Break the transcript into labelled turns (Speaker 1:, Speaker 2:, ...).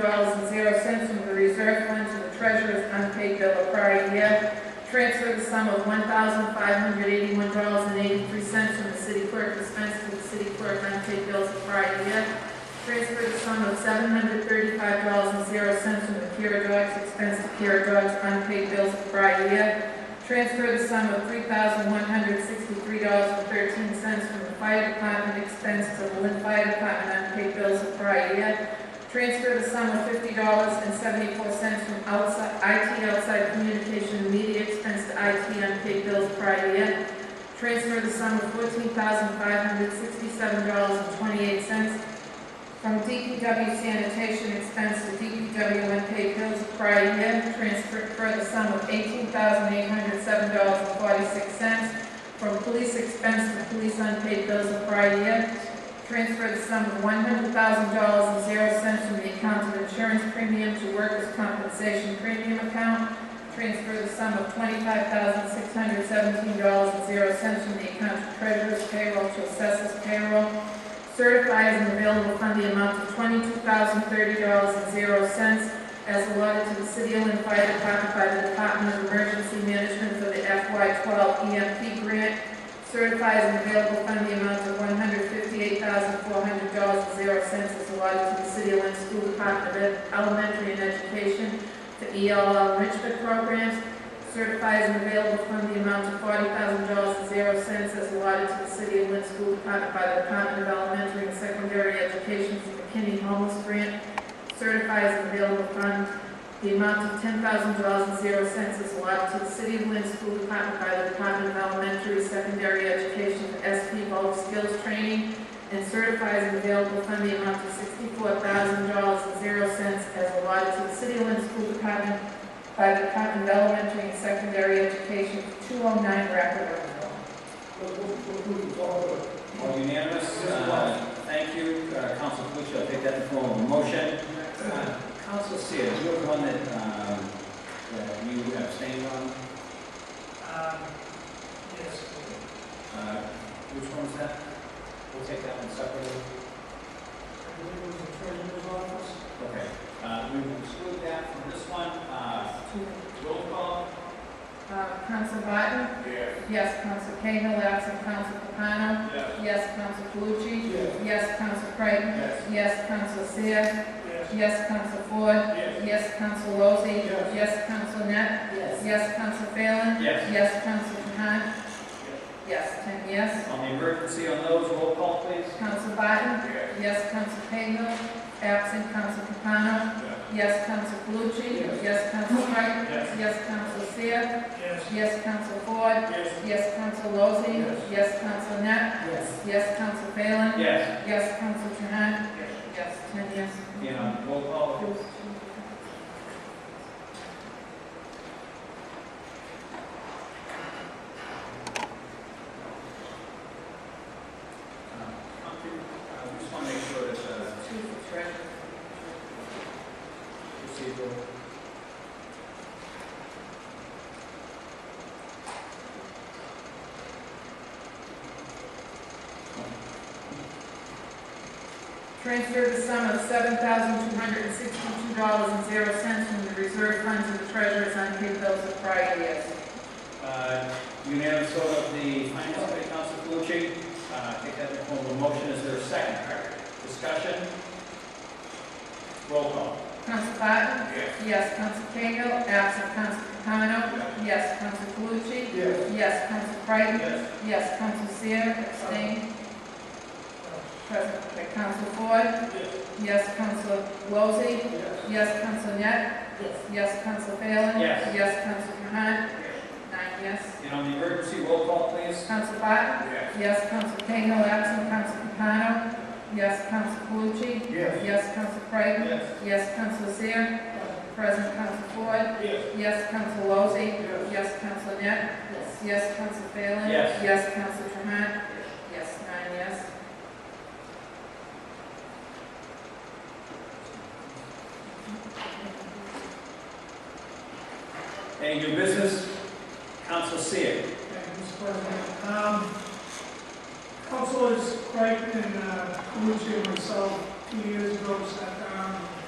Speaker 1: dollars and zero cents from the reserve fund to the treasurer's unpaid bill of prior year. Transfer the sum of one thousand five hundred eighty-one dollars and eighty-three cents from the city clerk expense to the city clerk unpaid bills of prior year. Transfer the sum of seven hundred thirty-five dollars and zero cents from the Kira Dog's expense to Kira Dog's unpaid bills of prior year. Transfer the sum of three thousand one hundred sixty-three dollars and thirteen cents from the fire department expense to the Lynn Fire Department unpaid bills of prior year. Transfer the sum of fifty dollars and seventy-four cents from outside, IT outside communication and media expense to IT unpaid bills prior year. Transfer the sum of fourteen thousand five hundred sixty-seven dollars and twenty-eight cents from DPW sanitation expense to DPW unpaid bills of prior year, transfer for the sum of eighteen thousand eight hundred seven dollars and forty-six cents. From police expense to police unpaid bills of prior year, transfer the sum of one hundred thousand dollars and zero cents from the account of insurance premium to workers' compensation premium account. Transfer the sum of twenty-five thousand six hundred seventeen dollars and zero cents from the account of treasurer's payroll to assessors payroll. Certify as an available fund the amount of twenty-two thousand thirty dollars and zero cents as allotted to the City of Lynn Fire Department by the Department of Emergency Management for the FY twelve EMP grant. Certify as an available fund the amount of one hundred fifty-eight thousand four hundred dollars and zero cents as allotted to the City of Lynn School Department of Elementary and Education E for ELL enrichment programs. Certify as an available fund the amount of forty thousand dollars and zero cents as allotted to the city of Lynn School Department by the Department of Elementary and Secondary Education for McKinney Homeless Grant. Certify as an available fund the amount of ten thousand dollars and zero cents as allotted to the city of Lynn School Department by the Department of Elementary and Secondary Education for SP Bulk Skills Training. And certify as an available fund the amount of sixty-four thousand dollars and zero cents as allotted to the city of Lynn School Department by the Department of Elementary and Secondary Education, 209 Rapid Road.
Speaker 2: All unanimous, Uh, thank you, Uh, Council Calucci, I'll take that in the form of a motion. Uh, Council Sears, you have one that, um, that you abstained on,
Speaker 3: Um, yes,
Speaker 2: Uh, which one's that? We'll take that one separately.
Speaker 3: I believe it was the treasurer's office.
Speaker 2: Okay, Uh, we will exclude that from this one, Uh, roll call,
Speaker 1: Uh, Counsel Barton?
Speaker 4: Yes.
Speaker 1: Yes, Counsel Cahill, absent Counsel Capano?
Speaker 4: Yes.
Speaker 1: Yes, Counsel Calucci?
Speaker 3: Yes.
Speaker 1: Yes, Counsel Creighton?
Speaker 4: Yes.
Speaker 1: Yes, Counsel Seer?
Speaker 3: Yes.
Speaker 1: Yes, Counsel Ford?
Speaker 4: Yes.
Speaker 1: Yes, Counsel Lozey?
Speaker 3: Yes.
Speaker 1: Yes, Counsel Net?
Speaker 3: Yes.
Speaker 1: Yes, Counsel Phelan?
Speaker 2: Yes.
Speaker 1: Yes, Counsel Trahan? Yes, ten yes.
Speaker 2: on the emergency on those, roll call please.
Speaker 1: Counsel Barton?
Speaker 4: Yes.
Speaker 1: Yes, Counsel Cahill, absent Counsel Capano? Yes, Counsel Calucci. Yes, Counsel Creighton.
Speaker 4: Yes.
Speaker 1: Yes, Counsel Seer.
Speaker 3: Yes.
Speaker 1: Yes, Counsel Ford.
Speaker 4: Yes.
Speaker 1: Yes, Counsel Lozey.
Speaker 4: Yes.
Speaker 1: Yes, Counsel Net.
Speaker 3: Yes.
Speaker 1: Yes, Counsel Phelan.
Speaker 2: Yes,
Speaker 1: Yes, Counsel Trahan. Yes, ten yes.
Speaker 2: yeah, roll call. Uh, I just want to make sure that uh,
Speaker 1: Two for treasurer.
Speaker 2: procedural.
Speaker 1: Transfer the sum of seven thousand two hundred and sixty-two dollars and zero cents from the reserve fund to the treasurer's unpaid bills of prior years.
Speaker 2: Uh, Unanimous vote of the finance committee, Council Calucci. Uh, Take that in the form of a motion. Is there a second? Discussion? Roll call.
Speaker 1: Counsel Barton.
Speaker 4: Yes.
Speaker 1: Yes, Counsel Cahill. Absent Counsel Capano. Yes, Counsel Calucci.
Speaker 4: Yes.
Speaker 1: Yes, Counsel Creighton.
Speaker 2: Yes.
Speaker 1: Yes, Counsel Seer, abstain. Present, okay, Counsel Ford. Yes, Counsel Lozey. Yes, Counsel Net.
Speaker 3: Yes.
Speaker 1: Yes, Counsel Phelan.
Speaker 2: Yes.
Speaker 1: Yes, Counsel Trahan. Nine yes.
Speaker 2: And on the emergency, roll call, please.
Speaker 1: Counsel Barton.
Speaker 4: Yes.
Speaker 1: Yes, Counsel Cahill, absent Counsel Capano. Yes, Counsel Calucci.
Speaker 4: Yes.
Speaker 1: Yes, Counsel Creighton.
Speaker 2: Yes.
Speaker 1: Yes, Counsel Seer. Present, Counsel Ford.
Speaker 4: Yes.
Speaker 1: Yes, Counsel Lozey.
Speaker 4: Yes.
Speaker 1: Yes, Counsel Net.
Speaker 3: Yes.
Speaker 1: Yes, Counsel Phelan.
Speaker 2: Yes.
Speaker 1: Yes, Counsel Trahan. Yes, nine yes.
Speaker 2: Any new business? Council Seer.
Speaker 3: Thank you, Mr. President. Um, Councilors Creighton and uh, Calucci and myself, two years ago, sat